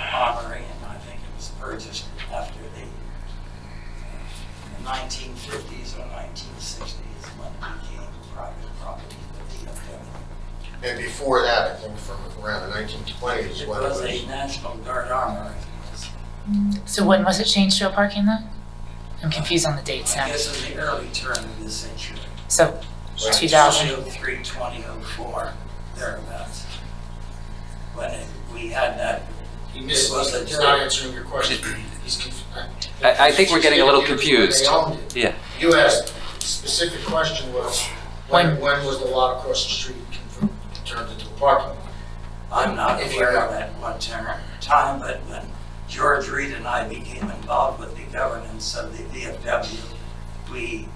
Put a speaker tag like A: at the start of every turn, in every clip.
A: uh,
B: around the nineteen twenties,
A: It
B: when it
A: was a
B: was,
A: National Guard armor.
C: So when was it changed to a parking lot? I'm confused on the dates
A: I
C: now.
A: guess in the early turn of this century.
C: So 2000,
A: 2003, 2004, thereabouts. When it- we had that,
D: He missed,
A: It was a
D: he's not answering your question. He's conf-
E: I, I think we're getting a little
D: They owned
E: confused.
D: it.
E: Yeah.
D: You asked, specific question was, when, when was the lot across the street converted, turned into a parking lot?
A: I'm not
D: If
A: aware
D: you're-
A: of at what ter- time, but when George Reed and I became involved with the governance of the VFW, we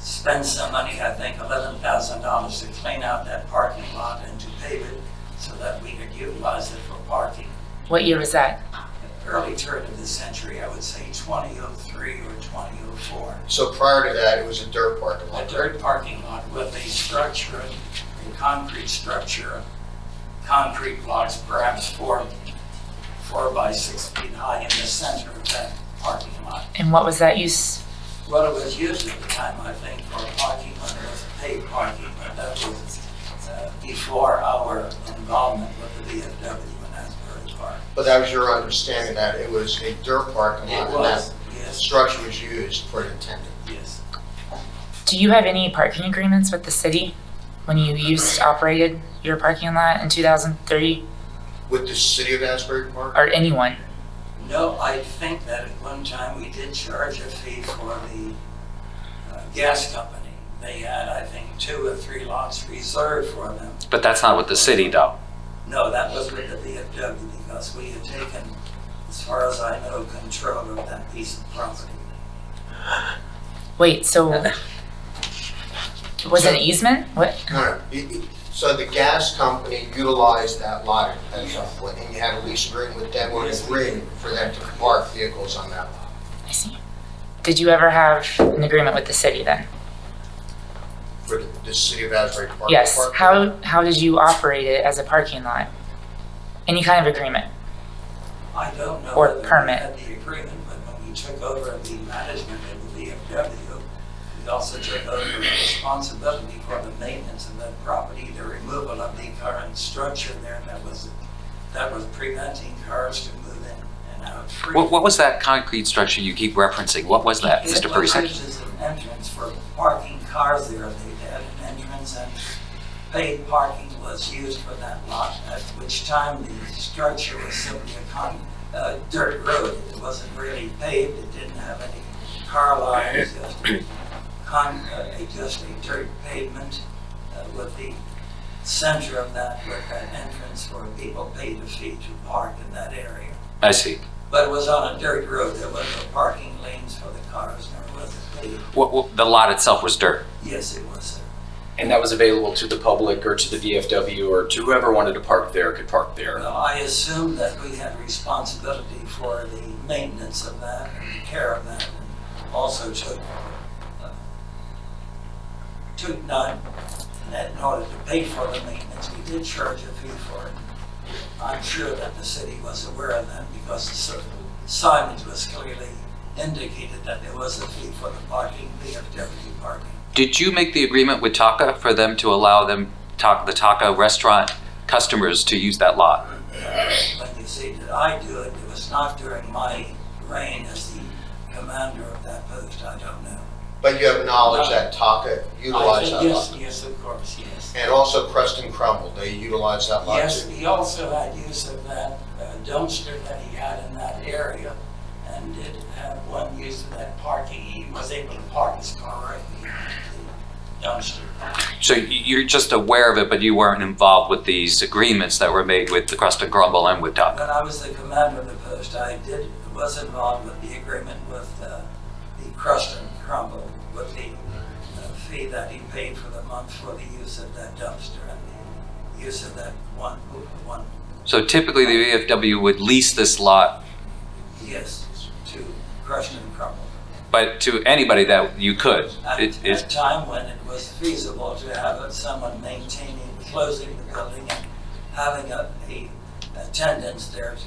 A: spent some money, I think $11,000, to clean out that parking lot and to pave it so that we could utilize it for parking.
C: what year was that?
A: Early turn of the century, I would say 2003 or 2004.
B: so prior to that, it was a dirt parking
A: a
B: lot.
A: dirt parking lot with a structure, a concrete structure, concrete blocks perhaps four, four by six feet high in the center of that parking lot.
C: And what was that use?
A: Well, it was used at the time, I think, for parking, lot. it was paid parking, but that was uh, before our involvement with the VFW in Asbury Park.
B: But that was your understanding that it was a dirt parking lot?
A: It
B: and that
A: was, yes,
B: Structure was used for an intended.
A: yes.
C: Do you have any parking agreements with the city when you used, operated your parking lot in 2003
B: With the city of Asbury Park?
C: or anyone?
A: No, I think that at one time we did charge a fee for the uh, gas company. They had, I think, two or three lots reserved for them.
E: But that's not with the city, though.
A: No, that was with the VFW because we had taken, as far as I know, control of that piece of property.
C: Wait, so was it an easement? What?
B: No, no. It- it- So the gas company utilized that lot at some point, and you had a lease agreement with them on a ring for them to park vehicles on that lot.
C: I see. Did you ever have an agreement with the city then?
B: For the- the city of Asbury Park?
C: Yes.
B: Park-
C: How, how did you operate it as a parking lot? Any kind of agreement?
A: I don't know
C: Or
A: whether we
C: permit.
A: had the agreement, but when we took over the management of the VFW, we also took over the responsibility for the maintenance of that property, the removal of the current structure there that was, that was preventing cars to move in and out freely.
E: What, what was that concrete structure you keep referencing? What was that, Mr.
A: It
E: Percy?
A: was used as an entrance for parking cars there. They had an entrance and paid parking was used for that lot, at which time the structure was simply a con, uh, dirt road. It wasn't really paved. It didn't have any car lines, just a con, uh, just a dirt pavement uh, with the center of that, with that entrance where people paid a fee to park in that area.
E: I see.
A: But it was on a dirt road, there was no parking lanes for the cars, there wasn't paved.
E: What, what, the lot itself was dirt.
A: Yes, it was, sir.
F: And that was available to the public or to the VFW or to whoever wanted to park there could park there.
A: Well, I assumed that we had responsibility for the maintenance of that and the care of that. Also took, uh, took none, and in order to pay for the maintenance, we did charge a fee for it. I'm sure that the city was aware of that because the cer- signage was clearly indicated that there was a fee for the parking, VFW parking.
E: Did you make the agreement with Taka for them to allow them, Ta- the Taka restaurant customers to use that lot?
A: But you see, did I do it? It was not during my reign as the commander of that post, I don't know.
B: But you have knowledge that
A: Uh,
B: Taka
A: I
B: utilized
A: said,
B: that lot?
A: Yes, yes, of course, yes.
B: And also Preston Crumble, they utilized that lot
A: Yes,
B: too.
A: he also had use of that uh, dumpster that he had in that area and did have one use of that parking. He was able to park his car right in the dumpster.
E: So y- you're just aware of it, but you weren't involved with these agreements that were made with the Crust and Grumble and with Taka?
A: When I was the commander of the post, I did, was involved with the agreement with uh, the Crust and Crumble, with the uh, fee that he paid for the month for the use of that dumpster and the use of that one, one,
E: So typically, the VFW would lease this lot,
A: yes, to Crust and Crumble.
E: but to anybody that you could.
A: At
E: It-
A: at a
E: it-
A: time when it was feasible to have someone maintaining, closing the building and having a, a attendance there to